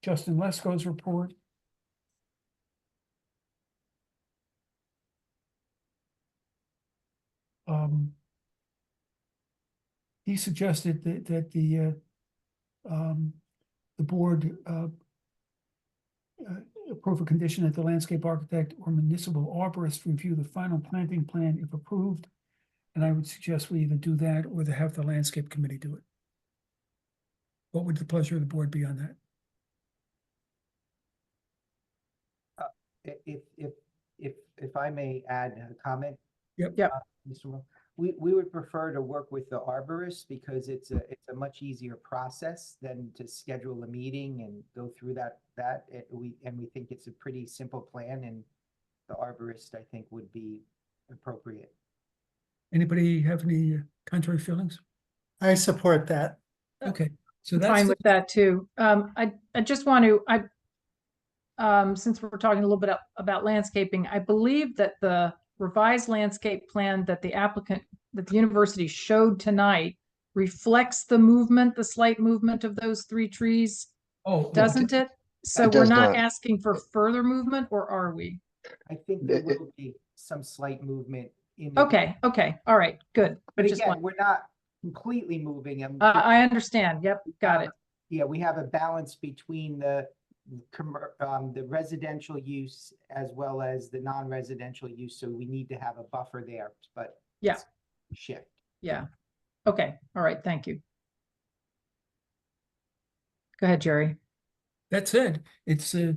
Justin Lesko's report. Um. He suggested that, that the, uh, um, the board, uh, uh, approve a condition that the landscape architect or municipal arborist review the final planting plan if approved. And I would suggest we either do that or to have the landscape committee do it. What would the pleasure of the board be on that? i- if, if, if, if I may add a comment. Yep. Yep. uh, Mr. Mo- We, we would prefer to work with the arborist because it's a, it's a much easier process than to schedule a meeting and go through that, that. It- We, and we think it's a pretty simple plan and the arborist, I think, would be appropriate. Anybody have any uh, contrary feelings? I support that. Uh, Okay, so that's, fine the- with that too. Um, I, I just want to, I, um, since we're talking a little bit up- about landscaping, I believe that the revised landscape plan that the applicant, that the university showed tonight reflects the movement, the slight movement of those three trees, oh. well, doesn't it? So we're does not not. asking for further movement, or are we? I think there It- it- will be some slight movement in. the- Eh, Okay, okay, all right, good. Mm-hmm. But I just Uh, again, want- we're not completely moving them. I, I understand. Yep, got it. Yeah, we have a balance between the commer- um, the residential use as well as the non-residential use, so we need to have a buffer there, but. Yeah. it's Shift. Yeah. Okay, all right, thank you. Go ahead, Jerry. That said, it's a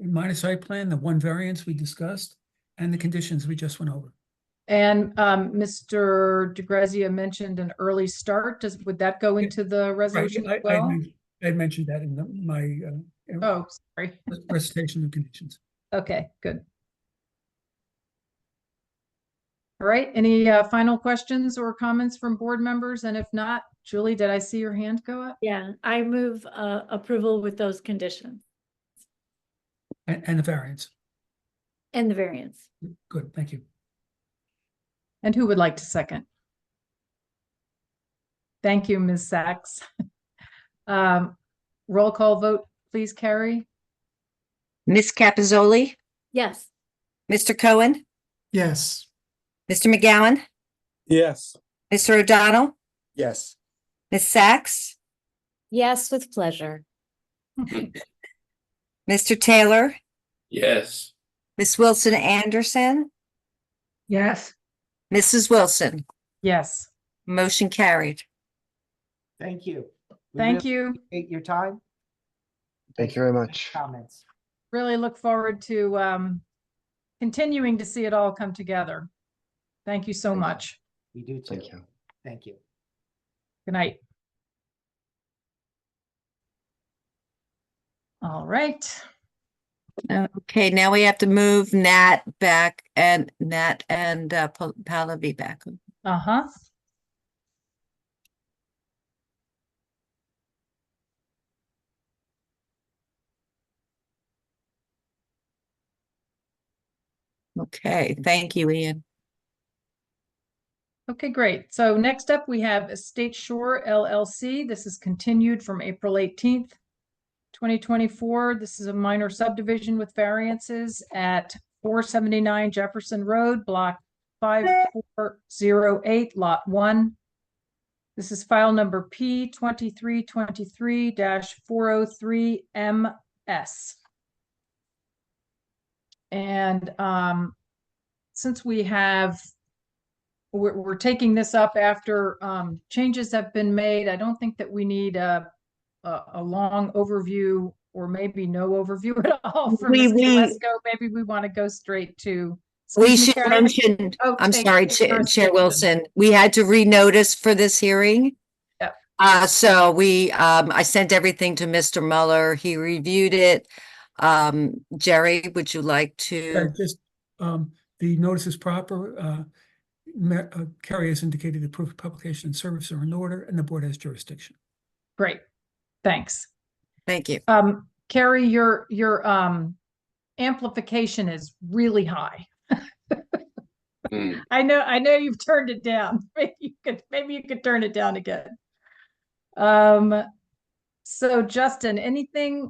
minor site plan, the one variance we discussed, and the conditions we just went over. And um, Mr. DeGrazia mentioned an early start. Does, would that go Yeah, into the Right, resolution I- as I well? men- I had mentioned that in the- my uh, in Oh, sorry. the presentation of conditions. Okay, good. All right, any uh, final questions or comments from board members? And if not, Julie, did I see your hand go up? Yeah, I move uh, approval with those conditions And, and the variance. and the variance. Good, thank you. And who would like to second? Thank you, Ms. Sachs. Um, Roll call vote, please, Carrie? Miss Capizoli, Yes, Mr. Cohen, Yes. Mr. McGowan, Yes. Mr. O'Donnell, Yes. Miss Sachs, Yes, with pleasure. Mr. Taylor, Yes. Miss Wilson Anderson, Yes. Mrs. Wilson. Yes, Motion carried. Thank you. We thank really you. Appreciate your time. Thank you very much. Comments. really look forward to um, continuing to see it all come together. Thank you so Thank you. much. We do too. Thank you. Thank you. Good night. All right. Okay, now we have to move Nat back and Nat and uh, Pa- Pallavi back. Uh-huh. Okay, thank you, Ian. Okay, great. So next up, we have Estate Shore LLC. This is continued from April 18th, 2024. This is a minor subdivision with variances at 479 Jefferson Road, Block 5408, Lot 1. This is file number P2323-403MS. And um, since we have we're, we're taking this up after um, changes have been made. I don't think that we need a, a, a long overview or maybe no overview at all for We- Mr. we- Lesko. Maybe we want to go straight to. We Excuse me, should Carrie? mention, Oh, I'm thank sorry, you, Chair First Chair Amendment. Wilson, we had to renotice for this hearing. Yep. Uh, so we, um, I sent everything to Mr. Muller. He reviewed it. Um, Jerry, would you like Yeah, to? Just, um, the notice is proper, uh, ma- uh, Carrie has indicated the proof of publication and service are in order, and the board has jurisdiction. Great, thanks. Thank you. Um, Carrie, your, your, um, amplification is really high. I know, I know you've turned it down. Maybe you could, maybe you could turn it down again. Um, so Justin, anything